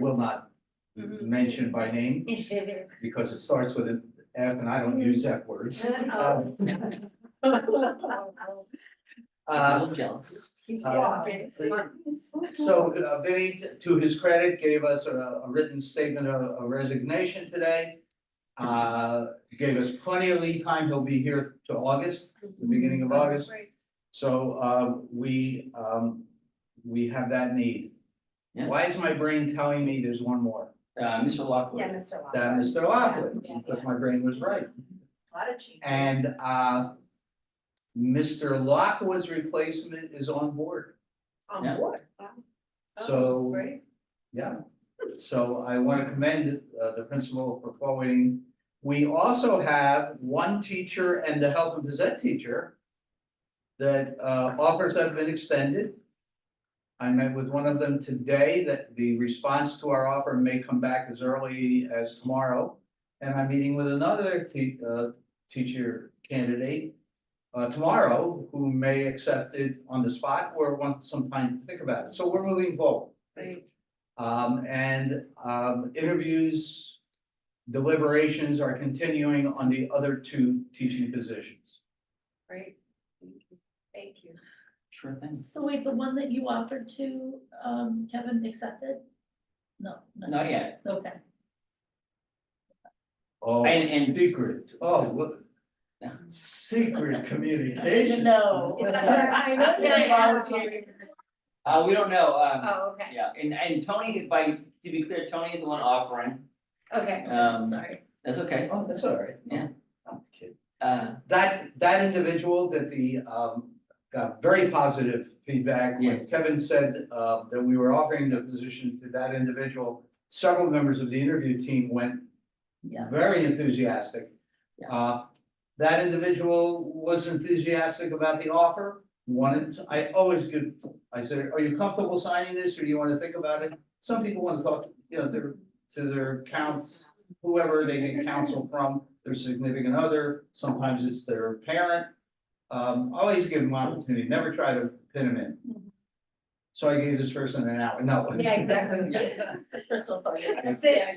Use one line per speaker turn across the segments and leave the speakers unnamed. will not mention by name because it starts with an F and I don't use F words.
Oh.
Um,
A
uh,
little jealous.
He's
Uh,
walking.
So uh, Vinnie, t- to his credit, gave us a a written statement of of resignation today. Uh, Gave us plenty of lead time. He'll be here to August, the beginning of August. So uh, we, um, we have that need.
Yeah.
Why is my brain telling me there's one more?
Uh, Mr.
Yeah,
Lockwood,
Mr. Lockhart.
That Mr. Lockwood,
Yeah, yeah.
because my brain was right.
A lot of changes.
And uh, Mr. Lockwood's replacement is on board.
On
Yeah.
board.
So-
Oh, great.
Yeah, so I want to commend uh, the principal for forwarding. We also have one teacher and the health and phys ed teacher that uh, offers have been extended. I met with one of them today that the response to our offer may come back as early as tomorrow. And I'm meeting with another te- uh, teacher candidate uh, tomorrow who may accept it on the spot or want some time to think about it. So we're moving forward.
Great.
Um, and, um, interviews, deliberations are continuing on the other two teaching positions.
Great. Thank you.
sure thing.
So wait, the one that you offered to um Kevin accepted? No. no.
Not yet.
Okay,
Oh,
And- and-
secret, oh, what? Secret communication.
No.
I know you're volunteering.
Uh, we don't know, um,
Oh, okay,
yeah, and, and Tony, by, to be clear, Tony is the one offering,
okay.
um,
sorry.
that's okay.
Oh, that's all right.
Yeah.
I'm kidding.
Uh,
That, that individual that the, um, got very positive feedback. when
Yes.
Kevin said, uh, that we were offering the position to that individual. Several members of the interview team went
Yeah,
very enthusiastic.
Yeah.
Uh, that individual was enthusiastic about the offer, wanted, to- I always give, I said, are you comfortable signing this, or do you wanna think about it? Some people wanna talk, you know, their, to their counts, whoever they get counsel from, their significant other, sometimes it's their parent. Um, always give them opportunity, never try to pin them in. So I gave this person an hour, no.
Yeah, exactly.
Yeah.
that's personal for you.
That's
it.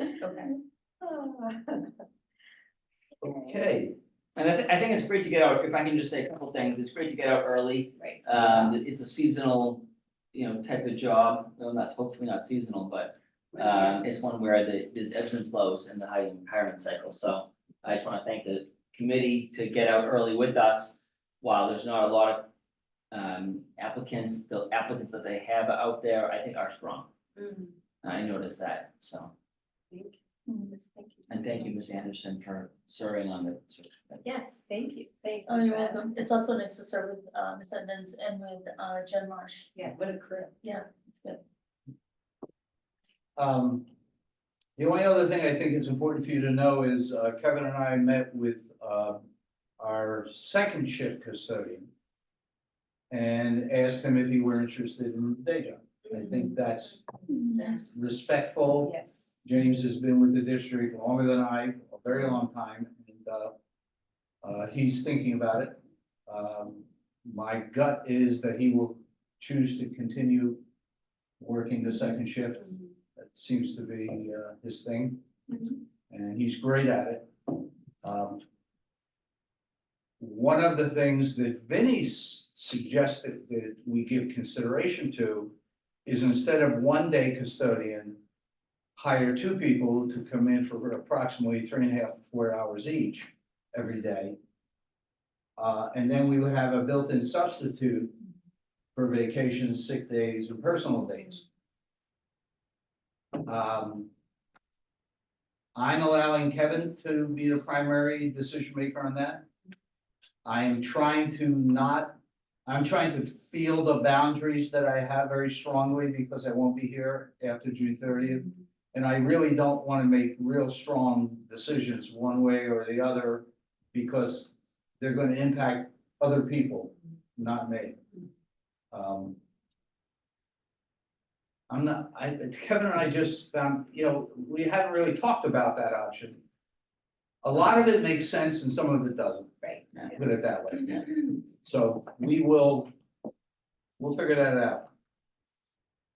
Okay.
Okay,
and I thi- I think it's great to get out, if I can just say a couple things, it's great to get out early,
Right.
Um, it's a seasonal, you know, type of job, well, that's hopefully not seasonal, but um, it's one where the, there's ebbs and flows in the hiring, hiring cycle, so I just wanna thank the committee to get out early with us. While there's not a lot of um applicants, the applicants that they have out there, I think are strong,
Mm,
I noticed that, so.
thank you.
Hmm.
Yes, Thank you.
And thank you, Ms. Anderson, for serving on the search committee.
Yes, thank you, thank you.
Oh, you're
for that.
welcome. It's also nice to serve with uh Miss Edmonds and with uh Jen Marsh.
Yeah, what a crew.
Yeah, it's good.
Um, the only other thing I think it's important for you to know is uh, Kevin and I met with, uh, our second shift custodian. And asked him if he were interested in the day job. I think that's
Mm-hmm.
Yes.
respectful.
Yes.
James has been with the district longer than I, a very long time, and, uh, uh, he's thinking about it. Um, my gut is that he will choose to continue working the second shift. That seems to be uh his thing.
Mhm.
And he's great at it. Um. One of the things that Vinnie s- suggested that we give consideration to is instead of one day custodian. Hire two people to come in for approximately three and a half to four hours each every day. Uh, and then we would have a built-in substitute for vacations, sick days and personal days. Um. I'm allowing Kevin to be the primary decision maker on that. I am trying to not, I'm trying to feel the boundaries that I have very strongly because I won't be here after June thirtieth. And I really don't wanna make real strong decisions one way or the other because they're gonna impact other people, not me. Um. I'm not, I, Kevin and I just found, you know, we haven't really talked about that option. A lot of it makes sense and some of it doesn't.
Right.
Put it that way. So we will, we'll figure that out.